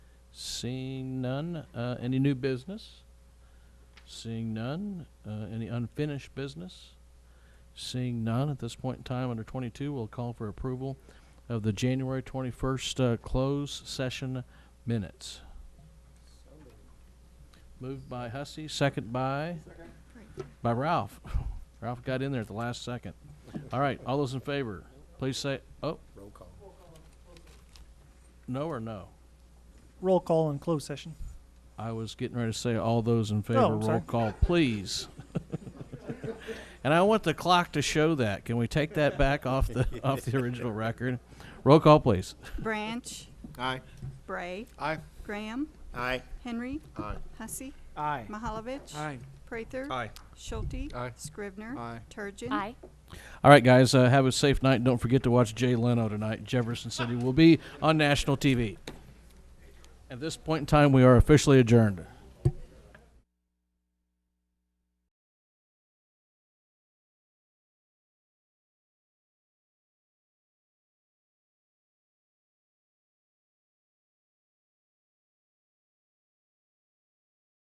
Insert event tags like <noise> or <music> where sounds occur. Seeing none, uh, any new business? Seeing none, uh, any unfinished business? Seeing none, at this point in time, under twenty-two, we'll call for approval of the January twenty-first, uh, closed session minutes. Moved by Hussey, second by? By Ralph. <laughs> Ralph got in there at the last second. All right, all those in favor, please say, oh, Roll call. no or no? Roll call in closed session. I was getting ready to say all those in favor, I'm roll sorry. call, <laughs> please. And I want the clock to show that. Can we take that back off <laughs> the, off the original record? Roll call, please. Branch, Aye. Bray, Aye. Graham, Aye. Henry, Aye. Hussey, Aye. Mahalovich. Prather. Schulte. Aye. Scrivener. Aye. Turgeon. Aye. All right, guys, uh, have a safe night. and Don't forget to watch Jay Leno tonight. Jefferson City will be on national TV. At this point in time, we are officially adjourned.